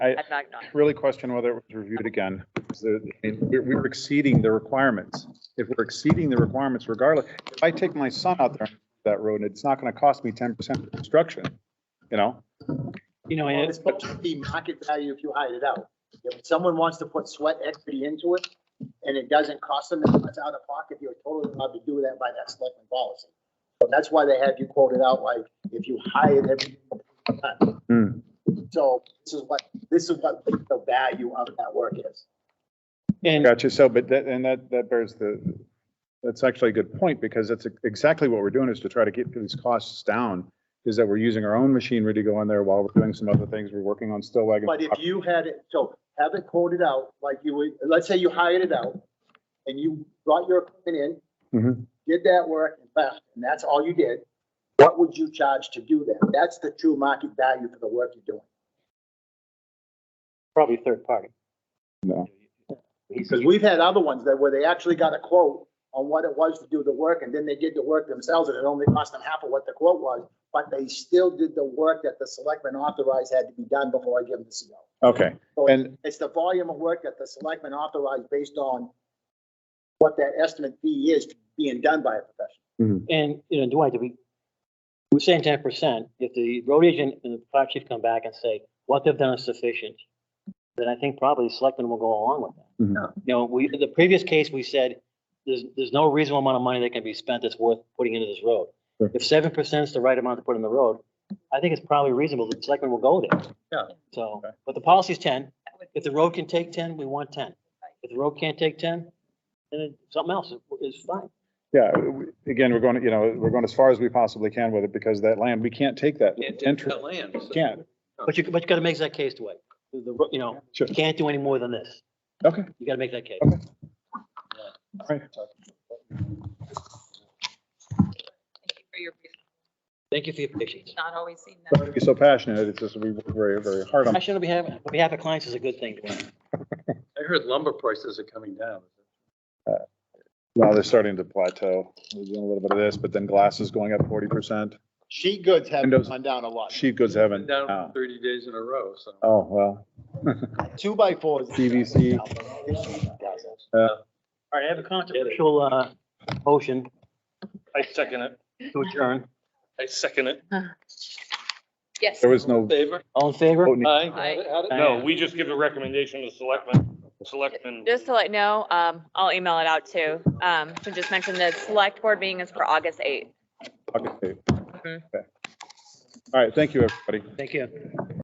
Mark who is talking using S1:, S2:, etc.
S1: I
S2: I'm not, not-
S1: really question whether it was reviewed again. because the- I mean, We're we're exceeding the requirements. If we're exceeding the requirements regardless, if I take my son out there on that road, it's not going to cost me 10% of construction, you know?
S3: You know,
S4: Well,
S3: and it's,
S4: It's supposed to be market value if you hide it out. If someone wants to put sweat equity into it and it doesn't cost them, that much out of pocket, you're totally allowed to do that by that selectman policy. So that's why they have you quoted out like, if you hide it.
S1: Hmm.
S4: So this is what, this is what the value of that work is.
S3: and
S1: Gotcha. So, but that, and that, that bears the, that's actually a good point because that's exactly what we're doing is to try to keep these costs down. Is that we're using our own machinery to go in there while we're doing some other things. We're working on still wagon.
S4: But if you had it, so have it quoted out, like you would, let's say you hired it out and you brought your equipment
S1: Mhm.
S4: in, did that work and left, and that's all you did, what would you charge to do that? That's the true market value for the work you're doing.
S3: probably third party.
S1: No.
S3: He's,
S4: Because we've had other ones that where they actually got a quote on what it was to do the work and then they did the work themselves and it only cost them half of what the quote was, but they still did the work that the selectmen authorized had to be done before I give them the CO.
S1: Okay.
S4: So it's-
S1: And
S4: It's the volume of work that the selectmen authorized based on what that estimate fee is being done by a professional.
S3: and, you know, Dwight, do we, we're saying ten percent. If the road agent and the fire chief come back and say, what they've done is sufficient, then I think probably the selectmen will go along with that.
S1: Mhm.
S3: You know, we, in the previous case, we said, there's, there's no reasonable amount of money that can be spent that's worth putting into this road.
S1: Sure.
S3: If seven percent is the right amount to put in the road, I think it's probably reasonable. The selectmen will go there.
S4: Yeah.
S3: So,
S1: Okay.
S3: but the policy's ten.
S2: that would
S3: If the road can take ten, we want ten. If the road can't take ten, then it- something else is is fine.
S1: yeah, w- again, we're going, to you know, we're going as far as we possibly can with it because that land, we can't take that.
S5: Can't take
S1: Enter,
S5: that land. so-
S1: can't.
S3: But you, but you gotta make that case to it. The, ro- you know,
S1: Sure.
S3: you can't do any more than this.
S1: Okay.
S3: You gotta make that case.
S1: Okay. Right.
S2: Thank you for your,
S3: Thank you for your patience.
S2: it's not always seen that.
S1: You're so passionate. It's just, we work very, very hard on.
S3: Passion on behalf, on behalf of clients is a good thing. Dwayne.
S5: I heard lumber prices are coming down.
S1: Now they're starting to plateau. We're doing a little bit of this, but then glass is going up forty percent.
S4: Sheet goods have
S1: Windows.
S4: gone down a lot.
S1: Sheet goods
S5: Been
S1: haven't.
S5: down
S1: uh,
S5: for thirty days in a row, so.
S1: Oh, well,
S4: Two by fours.
S1: PVC.
S3: All right, I have a controversial, uh, motion
S6: I second it.
S3: to adjourn.
S6: I second it.
S2: Yes.
S1: there was no.
S6: Favor?
S3: All in favor?
S1: vote needed.
S2: Aye.
S6: Oh, No, we just give a recommendation to selectmen, selectmen.
S2: Just to let you know, um, I'll email it out too. Um, to just mention the select board meeting is for August eighth.
S1: Okay. Okay. All right, thank you, everybody.
S3: Thank you.